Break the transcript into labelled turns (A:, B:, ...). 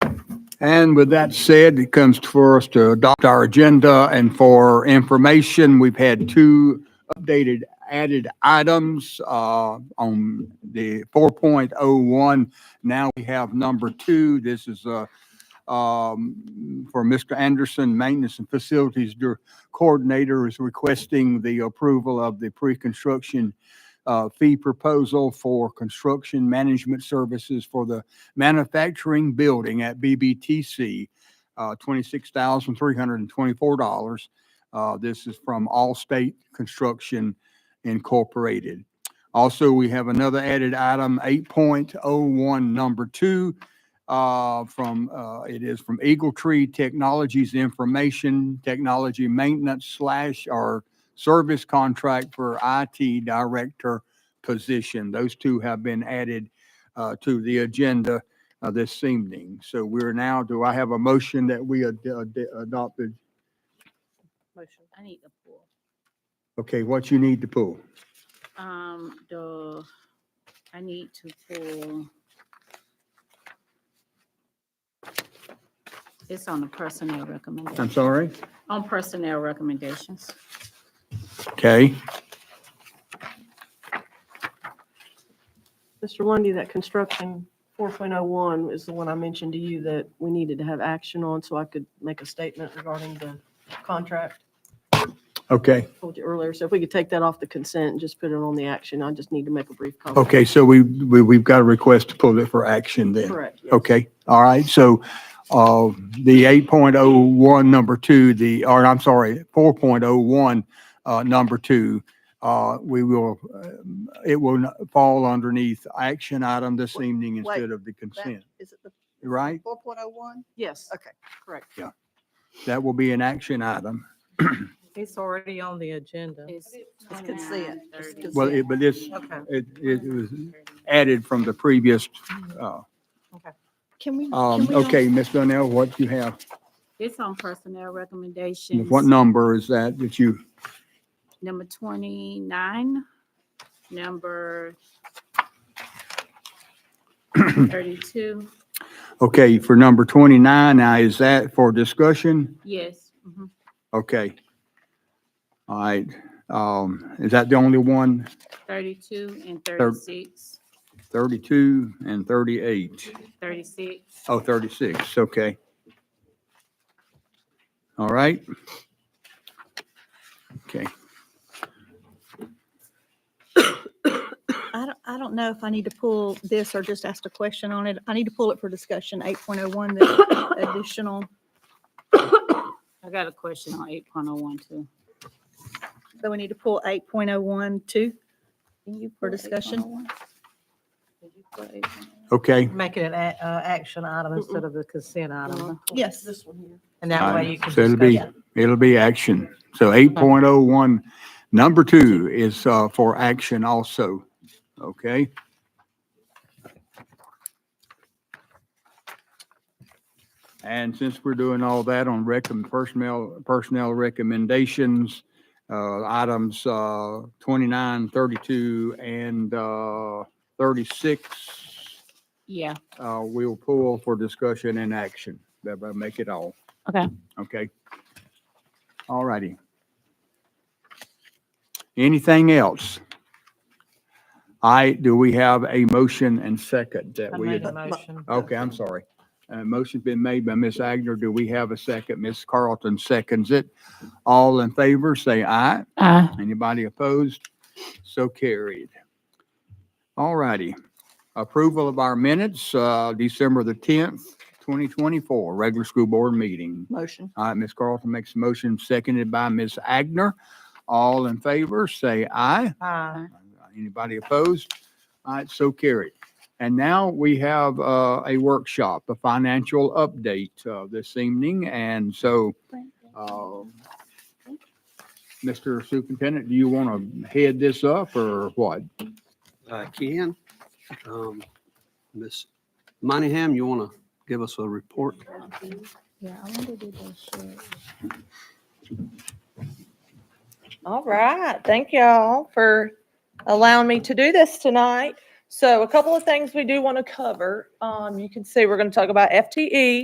A: And with that said, it comes for us to adopt our agenda and for information, we've had two updated added items uh, on the 4.01. Now we have number two. This is uh, um, for Mr. Anderson, Maintenance and Facilities Dir- Coordinator is requesting the approval of the pre-construction uh, fee proposal for construction management services for the manufacturing building at BBTC, uh, $26,324. Uh, This is from Allstate Construction Incorporated. Also, we have another added item, 8.01, number two, uh, from, uh, it is from Eagle Tree Technologies Information Technology Maintenance slash or service contract for IT Director position. Those two have been added uh, to the agenda uh, this evening. So we're now, do I have a motion that we ad- ad- adopted?
B: Motion. I need to pull.
A: Okay, what you need to pull?
B: Um, the, I need to pull. It's on the personnel
A: I'm
B: recommendation,
A: sorry?
B: on personnel recommendations.
A: Okay,
C: Mr. Lundy, that construction four point oh one is the one I mentioned to you that we needed to have action on, so I could make a statement regarding the contract.
A: okay,
C: I Told you earlier, so if we could take that off the consent and just put it on the action, I just need to make a brief comment.
A: okay, so we, we- we've got a request to pull it for action then.
C: Correct. yes.
A: Okay, all right, so, uh, the eight point oh one, number two, the, or I'm sorry, four point oh one, uh, number two, uh, we will, um, it will not fall underneath action item this evening
D: Wait,
A: instead of the
D: That-
A: consent,
D: Is it the
A: right?
D: four point oh one?
C: Yes,
D: Okay, correct.
A: That will be an action item.
E: It's already on the agenda.
B: It's
D: It's consent, it's
B: 29:30.
D: consent.
A: Well, it, but it's,
E: Okay.
A: it, it was added from the previous, uh,
D: Can we?
A: um,
D: can we
A: okay, Ms. Donnell, what you have,
B: It's on personnel recommendations.
A: what number is that that you?
B: Number twenty-nine, number thirty-two,
A: Okay, for number 29, now is that for discussion?
B: yes. mhm.
A: Okay. All right, um, is that the only one?
B: Thirty-two and thirty-six,
A: 32 and 38?
B: thirty-six.
A: Oh, 36, okay. All right. Okay,
D: I don't, I don't know if I need to pull this or just ask a question on it. I need to pull it for discussion, eight point oh one, the additional,
B: I got a question on eight point oh one too.
D: so we need to pull eight point oh one too for
B: oh
D: discussion.
A: okay,
E: Make it an a- uh, action item instead of the consent item.
D: Yes,
C: this one here.
E: And that
A: Fine.
E: way you can
A: So it'll
E: discuss
A: be-
E: it.
A: it'll be action. So 8.01, number two is, uh, for action also, okay? And since we're doing all that on recom, personnel, personnel recommendations, uh, items, uh, 29, 32, and, uh, 36,
B: Yeah,
A: uh, we'll pull for discussion and action. That will make it all.
B: Okay.
A: Okay. All righty. Anything else? I, do we have a motion and second that
E: I
A: we?
E: made a motion.
A: Okay, I'm sorry. Uh, motion's been made by Ms. Agner. Do we have a second? Ms. Carlton seconds it. All in favor, say aye.
B: uh,
A: Anybody opposed? So carried. All righty. Approval of our minutes, uh, December the tenth, twenty twenty-four, regular school board meeting.
D: motion.
A: All right, Ms. Carlton makes a motion, seconded by Ms. Agner. All in favor, say aye.
E: Aye.
A: Anybody opposed? All right, so carried. And now we have, uh, a workshop, a financial update, uh, this evening, and so, uh, Mr. Superintendent, do you want to head this up or what?
F: I can. Um, Ms. Monahan, you want to give us a report?
B: yeah, I wanted to do that.
G: All right, thank y'all for allowing me to do this tonight. So a couple of things we do want to cover. Um, you can see, we're going to talk about FTE.